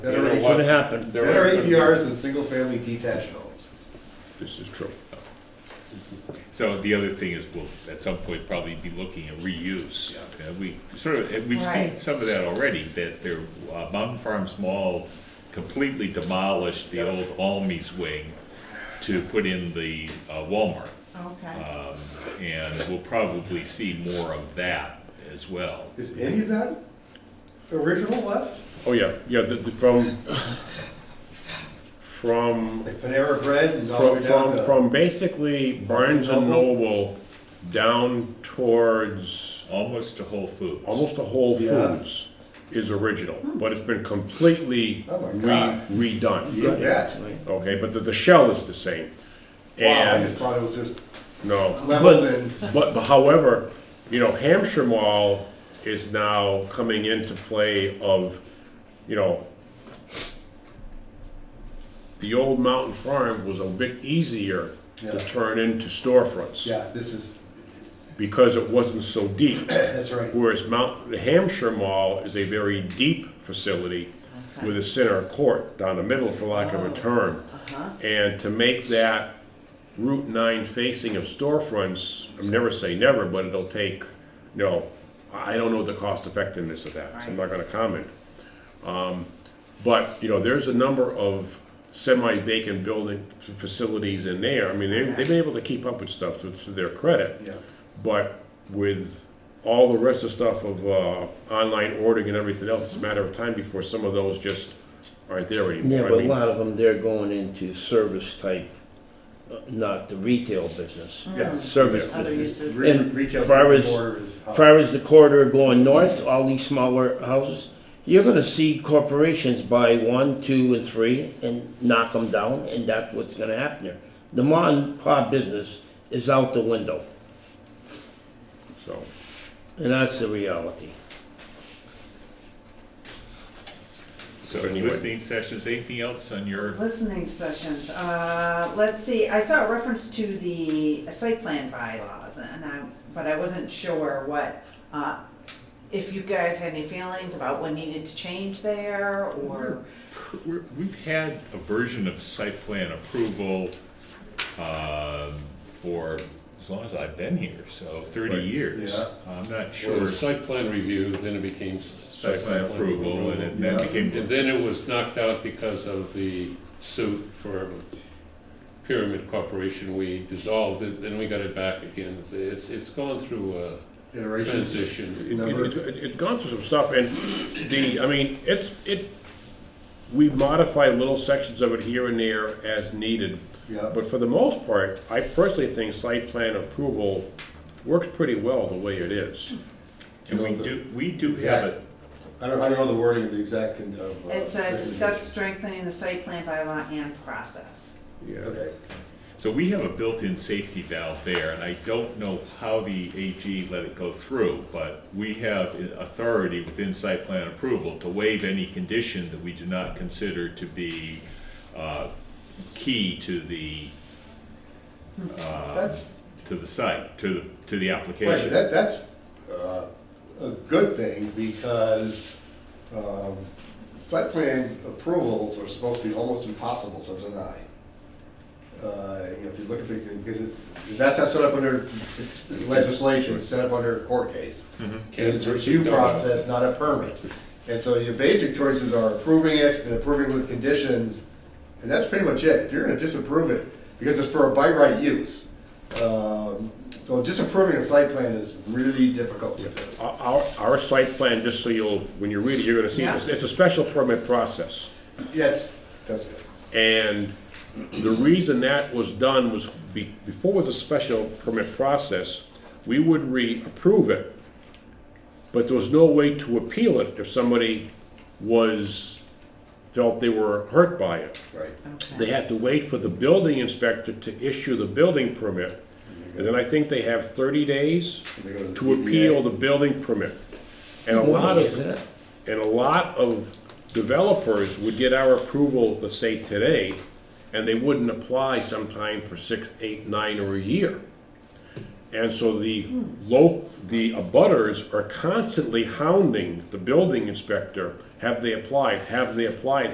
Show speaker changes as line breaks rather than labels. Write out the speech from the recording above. things would happen.
There are APRs in single-family detached homes.
This is true.
So the other thing is we'll, at some point, probably be looking at reuse.
Yeah.
Uh, We sort of, and we've seen
Right.
some of that already, that their, uh, Mountain Farms Mall completely demolished the old Almies wing to put in the uh, Walmart.
Okay.
Um, And we'll probably see more of that as well.
Is any of that original left?
Oh, yeah, yeah, the, the, from, from,
Like Panera Bread and all the
from,
way down
from,
to,
from basically Barnes and Noble down towards
Almost to Whole Foods.
almost to Whole
Yeah.
Foods is original, but it's been completely
Oh my
re-
God.
redone.
you bet.
Okay, but the, the shell is the same.
Wow, I
And,
just thought it was just
no.
leveled
But-
and,
But, but however, you know, Hampshire Mall is now coming into play of, you know, the old Mountain Farm was a bit easier to
Yeah.
turn into storefronts.
yeah, this is,
Because it wasn't so deep.
that's right.
Whereas Mount, the Hampshire Mall is a very deep facility with a center court down the middle, for lack of a term.
Uh-huh.
And to make that Route 9 facing of storefronts, I'm never say never, but it'll take, you know, I I don't know the cost effectiveness of that, so I'm not gonna comment. Um, But, you know, there's a number of semi-vacant building facilities in there. I mean, they- they've been able to keep up with stuff to to their credit.
Yeah,
But with all the rest of the stuff of uh, online ordering and everything else, it's a matter of time before some of those just aren't there anymore.
Yeah,
I
but a
mean,
lot of them, they're going into service type, uh, not the retail business.
yes.
Service
Hmm. Other
business.
uses.
Re-
And
Retail
far as-
store is uh, up.
Far as the corridor going north, all these smaller houses, you're gonna see corporations buy one, two, and three and knock them down, and that's what's gonna happen there. The mom and pop business is out the window,
So,
and that's the reality.
So
Anyway.
listening sessions, anything else on your,
Listening sessions, uh, let's see, I saw a reference to the site plan bylaws and I, but I wasn't sure what, uh, if you guys had any feelings about what needed to change there or,
we're- we've had a version of site plan approval um, for as long as I've been here, so 30
Right.
years.
Yeah.
I'm not
Well, it
sure.
was site plan review, then it became. s-
Site plan approval, and it then
Yeah.
And
became,
then it was knocked out because of the suit for Pyramid Corporation. We dissolved it, then we got it back again. It's- It's, it's gone through a
Iterations.
transition.
it,
Number-
it, it, it's gone through some stuff, and the, I mean, it's, it, we modify little sections of it here and there as needed.
Yeah,
But for the most part, I personally think site plan approval works pretty well the way it is.
and we do, we do have it.
I don't, I don't know the wording of the exact. con- of, uh,
it's uh,
regulation.
discuss strengthening the site plan bylaw and process.
Yeah.
Okay,
So we have a built-in safety valve there, and I don't know how the AG let it go through, but we have i- authority within site plan approval to waive any condition that we do not consider to be uh, key to the, uh,
that's,
to the site, to, the to the
Right,
application.
that, that's uh, a good thing because um, site plan approvals are supposed to be almost impossible to deny. Uh, You know, if you look at the, because it, because that's not set up under legislation, it's set up under a court case. And it's a review process, not a permit. And so your basic choices are approving it and approving with conditions, and that's pretty much it. If you're gonna disapprove it, because it's for a by right use. Um, So disapproving a site plan is really difficult to do.
Our- Our, our site plan, just so you'll, when you read it, you're gonna see, it's it's a special permit process.
Yes, that's good.
And the reason that was done was be, before it was a special permit process, we would reapprove it, but there was no way to appeal it if somebody was, felt they were hurt by it.
Right.
They
Okay.
had to wait for the building inspector to issue the building permit. And then I think they have thirty days
They go to the
to
ZBA.
appeal the building permit. And a lot
Why
of.
is that?
And a lot of developers would get our approval, let's say today, and they wouldn't apply sometime for six, eight, nine, or a year. And so the low, the abutters are constantly hounding the building inspector, have they applied, have they applied,